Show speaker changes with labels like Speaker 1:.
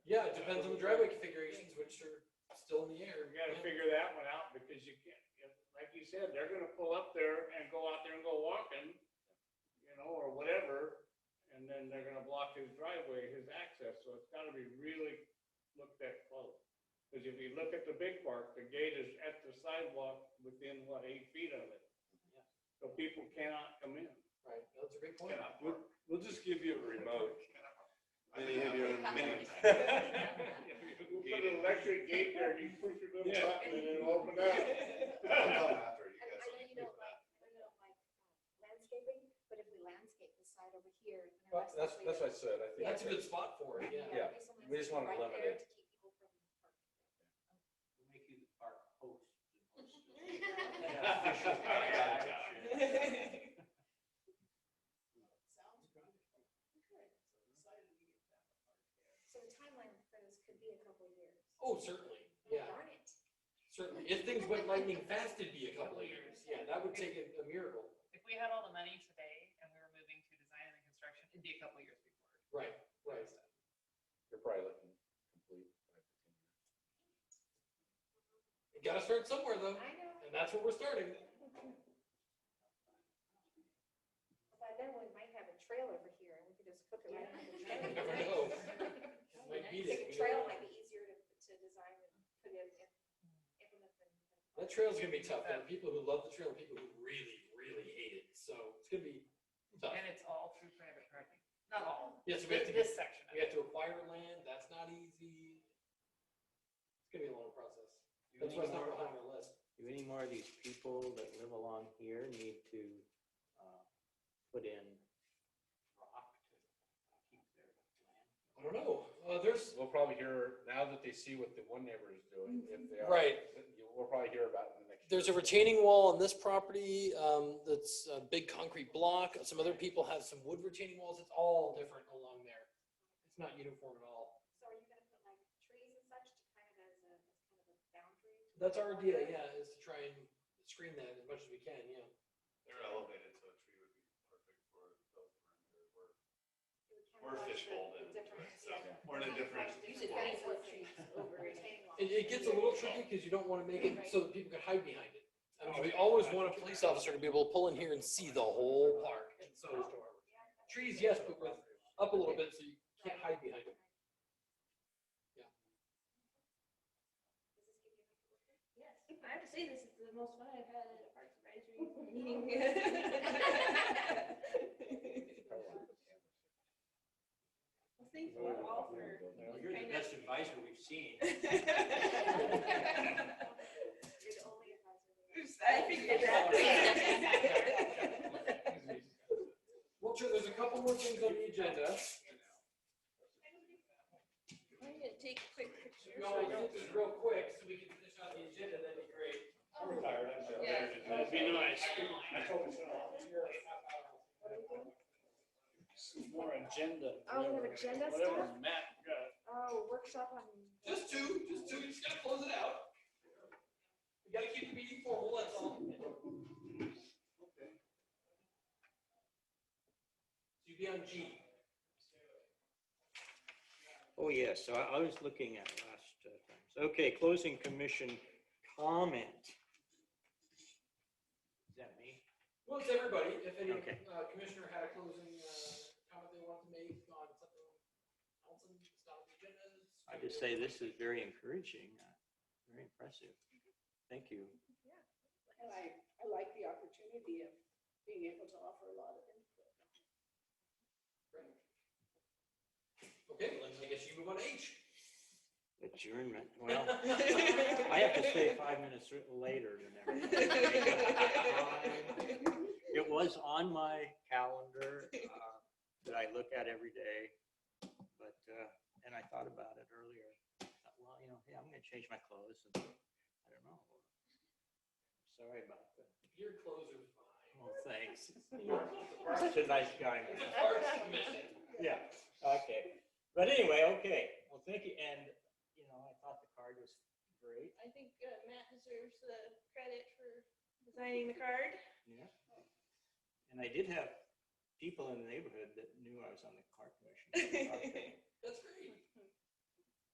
Speaker 1: depends on the driveway configurations, which are still in the air.
Speaker 2: We gotta figure that one out because you can't, if- like you said, they're gonna pull up there and go out there and go walking, you know, or whatever, and then they're gonna block his driveway, his access, so it's gotta be really looked at close. Cause if you look at the big park, the gate is at the sidewalk within, what, eight feet of it?
Speaker 1: Yeah.
Speaker 2: So people cannot come in.
Speaker 1: Right, that's a great point.
Speaker 3: Yeah, We'll, we'll just give you a remote. Then you have your own mini.
Speaker 2: You put an electric gate there, you push your little
Speaker 3: Yeah.
Speaker 2: button and it'll open up.
Speaker 3: I'll come after you
Speaker 4: I
Speaker 3: guys.
Speaker 4: know you don't like, I know you don't like uh, landscaping, but if we landscape the side over here. and the
Speaker 5: Well,
Speaker 4: rest
Speaker 5: That's,
Speaker 4: of the
Speaker 5: that's
Speaker 4: way
Speaker 5: what I
Speaker 4: down-
Speaker 5: said, I think.
Speaker 1: That's a good spot for it, yeah.
Speaker 5: yeah.
Speaker 4: there's some
Speaker 5: We just wanna
Speaker 4: landscaping right there
Speaker 5: limit
Speaker 4: to keep people from
Speaker 6: Make you the park host.
Speaker 4: Sounds good. So the timeline for this could be a couple of years.
Speaker 1: Oh, certainly, yeah,
Speaker 4: Darn it.
Speaker 1: certainly. If things went lightning fast, it'd be a couple of years. Yeah, that would take a a miracle.
Speaker 7: If we had all the money today and we were moving to design and construction, it'd be a couple years before.
Speaker 1: Right, right.
Speaker 5: You're probably looking complete.
Speaker 1: You gotta start somewhere though,
Speaker 4: I know.
Speaker 1: and that's where we're starting.
Speaker 4: By then we might have a trail over here and we could just hook it right onto the
Speaker 1: You
Speaker 4: trail.
Speaker 1: never know. Might beat it.
Speaker 4: Like a trail might be easier to, to design and put in and implement than.
Speaker 1: That trail's gonna be tough. There are people who love the trail, and people who really, really hate it. So it's gonna be tough.
Speaker 7: And it's all through private property. Not all.
Speaker 1: Yes, we have to,
Speaker 7: This section of
Speaker 1: we
Speaker 7: it.
Speaker 1: have to acquire land. That's not easy. It's gonna be a long process.
Speaker 6: Do
Speaker 1: That's
Speaker 6: any
Speaker 1: why it's not
Speaker 6: more-
Speaker 1: really on our list.
Speaker 6: do any more of these people that live along here need to, uh, put in rock to keep their land?
Speaker 1: I don't know. Uh, there's,
Speaker 5: We'll probably hear, now that they see what the one neighbor is doing, if they are.
Speaker 1: Right.
Speaker 5: you- We'll probably hear about it in the next.
Speaker 1: there's a retaining wall on this property, um, that's a big concrete block. Some other people have some wood retaining walls. It's all different along there. It's not uniform at all.
Speaker 4: So are you gonna put like trees and such to kind of as a, as kind of a boundary?
Speaker 1: That's our idea, yeah, is to try and screen that as much as we can, yeah.
Speaker 3: They're elevated, so a tree would be perfect for those perimeter work.
Speaker 4: It would
Speaker 3: We're
Speaker 4: kind of like the-
Speaker 3: fishbowl
Speaker 4: the
Speaker 3: then,
Speaker 4: different-
Speaker 3: so
Speaker 4: yeah.
Speaker 3: we're in a different.
Speaker 4: Usually
Speaker 3: world.
Speaker 4: that's what trees over retaining walls.
Speaker 1: It, it gets a little tricky because you don't want to make it so that people can hide behind it. I mean, we
Speaker 2: Okay.
Speaker 1: always want a police officer to be able to pull in here and see the whole park, and so trees, yes, but with up a little bit so you can't hide behind it.
Speaker 8: Yes, I have to say, this is the most fun I've had at a Parks Advisory meeting. Well, thank you all for.
Speaker 6: Well,
Speaker 8: just
Speaker 6: You're the
Speaker 8: kind
Speaker 6: best advisor we've seen.
Speaker 8: of-
Speaker 4: You're the only advisor.
Speaker 8: Oops, I figured that.
Speaker 1: Well, sure, there's a couple more things on the agenda.
Speaker 8: I'm gonna take a quick picture.
Speaker 1: We all get this real quick so we can finish out the agenda, that'd be great.
Speaker 3: I'm retired, I'm sure.
Speaker 8: Yeah.
Speaker 2: That'd be nice. I told you so. More agenda.
Speaker 4: Oh, we have agenda
Speaker 2: Whatever
Speaker 4: stuff?
Speaker 2: Matt got.
Speaker 4: Oh, workshop on.
Speaker 1: Just two, just two, you just gotta close it out. You gotta keep the meeting formal, that's all. So you'd be on G.
Speaker 6: Oh, yes, so I I was looking at last uh, times. Okay, closing commission comment. Is that me?
Speaker 1: Well, it's everybody, if any
Speaker 6: Okay.
Speaker 1: uh, commissioner had a closing uh, comment they wanted to make on something else in the style of agendas.
Speaker 6: I just say this is very encouraging, uh, very impressive. Thank you.
Speaker 8: And I, I like the opportunity of being able to offer a lot of input.
Speaker 1: Okay, well, then I guess you move on to H.
Speaker 6: Adjournment, well. I have to stay five minutes r- later than everyone. It was on my calendar uh, that I look at every day, but, uh, and I thought about it earlier. Thought, Well, you know, hey, I'm gonna change my clothes and I don't know. Sorry about that.
Speaker 1: Your closer's fine.
Speaker 6: Well, thanks.
Speaker 1: It's
Speaker 6: Such a nice guy. man.
Speaker 1: a parts commission.
Speaker 6: Yeah, okay. But anyway, okay. Well, thank you. And, you know, I thought the card was great.
Speaker 8: I think uh, Matt deserves the credit for designing the card.
Speaker 6: Yeah. And I did have people in the neighborhood that knew I was on the car commission.
Speaker 1: That's great.